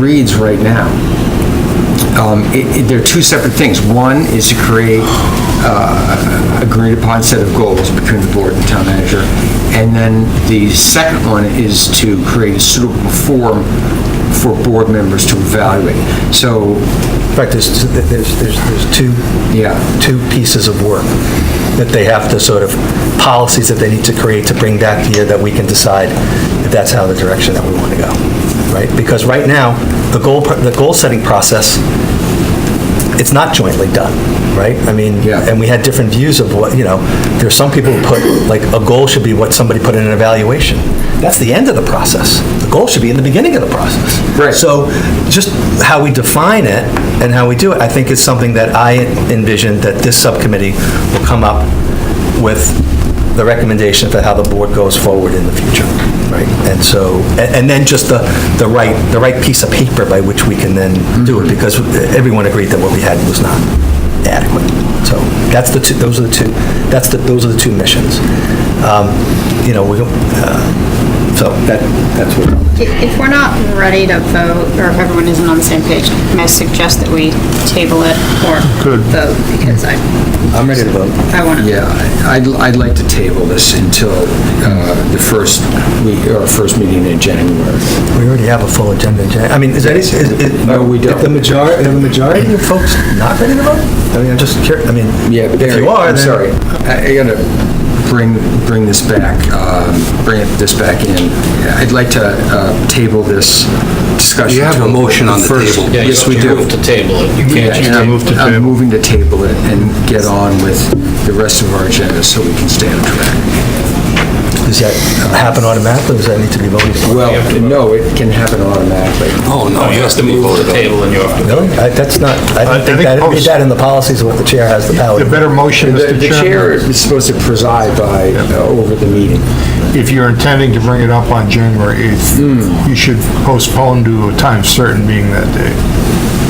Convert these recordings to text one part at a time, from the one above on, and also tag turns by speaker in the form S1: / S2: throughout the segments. S1: reads right now, um, it- it- they're two separate things. One is to create uh, a agreed upon set of goals between the board and town manager, and then the second one is to create a suitable form for board members to evaluate. So,
S2: In fact, there's, there's, there's there's two,
S1: Yeah.
S2: two pieces of work that they have to sort of, policies that they need to create to bring back to you that we can decide if that's how the direction that we want to go, right? Because right now, the goal, pr- the goal-setting process, it's not jointly done, right? I mean,
S1: Yeah.
S2: and we had different views of what, you know, there's some people who put, like, a goal should be what somebody put in an evaluation. That's the end of the process. The goal should be in the beginning of the process.
S1: Right.
S2: So so just how we define it and how we do it, I think is something that I envision that this subcommittee will come up with the recommendation for how the board goes forward in the future, right? And so, and and then just the, the right, the right piece of paper by which we can then do it, because everyone agreed that what we had was not adequate. So that's the two, those are the two, that's the, those are the two missions. Um, You know, we, don't, uh, so that, that's what.
S3: If we're not ready to vote, or if everyone isn't on the same page, may I suggest that we table it or vote? Because I,
S2: I'm ready to vote.
S3: I want to.
S1: yeah, I'd I'd like to table this until uh, the first week, or first meeting in January.
S2: We already have a full agenda, Jay. I mean, is that, is, is...
S1: No, we don't.
S2: If the majority, the majority of folks not ready to vote? I mean, I'm just curious, I mean...
S1: Yeah,
S2: If
S1: Barry,
S2: you are,
S1: I'm
S2: then-
S1: sorry. I I gotta bring, bring this back, um, bring it- this back in. I'd like to uh, table this discussion.
S4: You have
S1: to
S4: a motion on the
S1: first-
S4: table.
S5: Yeah, you
S1: Yes,
S5: have
S1: we
S5: to
S1: do.
S5: move to table it. You
S1: Yeah,
S5: can't
S1: and
S5: just
S1: I'm-
S6: move to table.
S1: I'm moving to table it and get on with the rest of our agenda so we can stay on track.
S2: Does that happen automatically, or does that need to be voted for?
S1: Well, no, it can happen automatically.
S4: Oh, no, you
S5: you have to
S4: be
S5: move
S4: voted
S5: to
S4: on.
S5: table and you have to
S2: Really? I- That's not, I
S6: I
S2: didn't think
S6: think
S2: that, I didn't read
S6: post-
S2: that in the policies, what the chair has the power
S6: The
S2: to do.
S6: better motion,
S1: The
S6: Mr.
S1: the chair
S6: Chairman,
S1: is supposed to preside by, uh, over the meeting.
S6: if you're intending to bring it up on January 8th, you should postpone to a time certain being that day,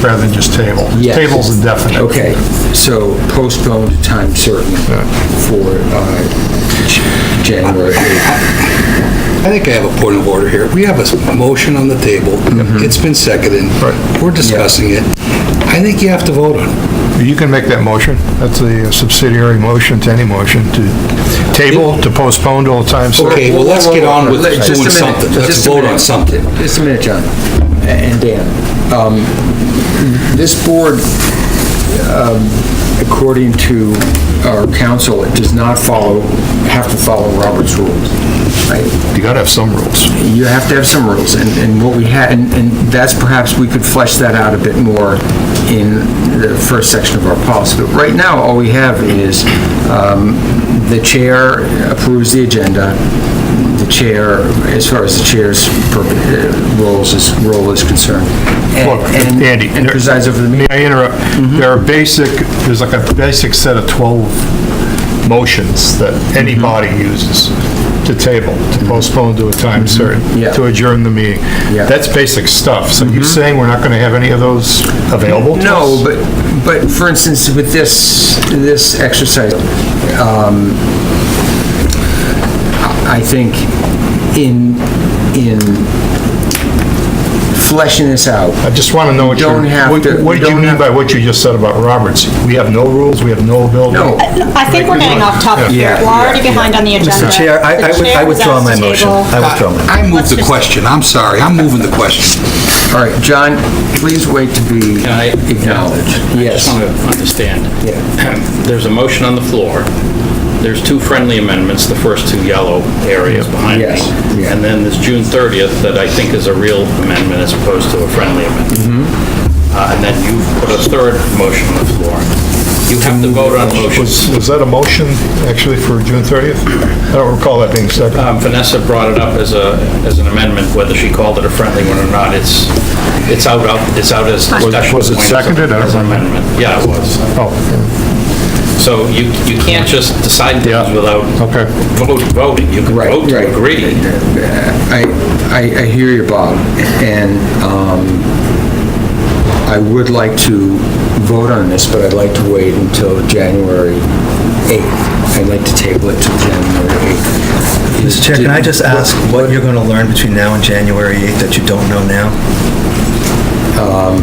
S6: rather than just table.
S1: Yes.
S6: Table's indefinite.
S1: Okay, so postpone to time certain for uh, J- January 8th.
S4: I think I have a point of order here. We have a s- motion on the table.
S5: Mm-hmm.
S4: It's been seconded. We're discussing it. I think you have to vote on it.
S6: You can make that motion. That's a subsidiary motion to any motion to table, to postpone till a time certain.
S4: Okay, well, let's get on with
S1: Let- just a
S4: doing
S1: minute,
S4: something. Let's
S1: just a
S4: vote
S1: minute.
S4: on something.
S1: Just a minute, John, and Dan. Um, This board, um, according to our council, it does not follow, have to follow Robert's rules, right?
S6: You gotta have some rules.
S1: you have to have some rules, and, and what we had, and, and that's perhaps, we could flesh that out a bit more in the first section of our policy. But right now, all we have is, um, the chair approves the agenda, the chair, as far as the chair's per- uh, roles is, role is concerned. and-
S6: Look,
S1: and-
S6: Andy,
S1: And
S6: there-
S1: presides over the meeting.
S6: May I interrupt?
S1: Mm-hmm.
S6: There are basic, there's like a basic set of 12 motions that any body
S1: Mm-hmm.
S6: uses to table, to postpone to a time certain,
S1: Yeah.
S6: to adjourn the meeting.
S1: Yeah. Mm-hmm.
S6: That's basic stuff. So you're saying we're not going to have any of those available to us?
S1: No, but, but for instance, with this, this exercise, um, I think in, in fleshing this out,
S6: I just want to know what
S1: You
S6: you're...
S1: don't have
S6: what-
S1: to-
S6: What
S1: you
S6: did you
S1: don't
S6: mean
S1: have-
S6: by what you just said about Roberts? We have no rules, we have no ability?
S1: no,
S3: I think we're getting off topic here.
S1: Yeah,
S3: We're already behind on the agenda.
S2: Mr. Chair, I- I
S3: The
S2: would- I
S3: chair was
S2: withdraw
S3: asked
S2: my
S3: to
S2: motion.
S3: table.
S2: I withdraw my...
S4: I moved
S3: Let's
S4: the
S3: just-
S4: question. I'm sorry. I'm moving the question.
S1: all right, John, please wait to be
S5: Can I-
S1: acknowledged.
S5: I just
S1: Yes,
S5: want to understand.
S1: Yeah.
S5: There's a motion on the floor. There's two friendly amendments, the first two yellow areas behind me.
S1: Yes, yeah.
S5: And then this June 30th that I think is a real amendment as opposed to a friendly amendment. Uh, And then you put a third motion on the floor. You have to vote on motions.
S6: Was was that a motion, actually, for June 30th? I don't recall that being seconded.
S5: Um, Vanessa brought it up as a, as an amendment, whether she called it a friendly one or not, it's, it's out, of- it's out as discussion.
S6: was it
S5: point as a-
S6: seconded? I don't
S5: As an
S6: remember.
S5: amendment, yeah, it was.
S6: Oh,
S5: So you, you can't just decide things
S6: Yeah.
S5: without
S6: Oh, Okay.
S5: vote- voting. You can
S1: Right,
S5: vote
S1: right.
S5: to agree.
S1: I, I, I hear you, Bob, and um, I would like to vote on this, but I'd like to wait until January 8th. I'd like to table it till January 8th.
S2: Mr. Chair, can I just
S1: Well,
S2: ask what you're going to learn between now and January 8th that you don't know now?
S1: um,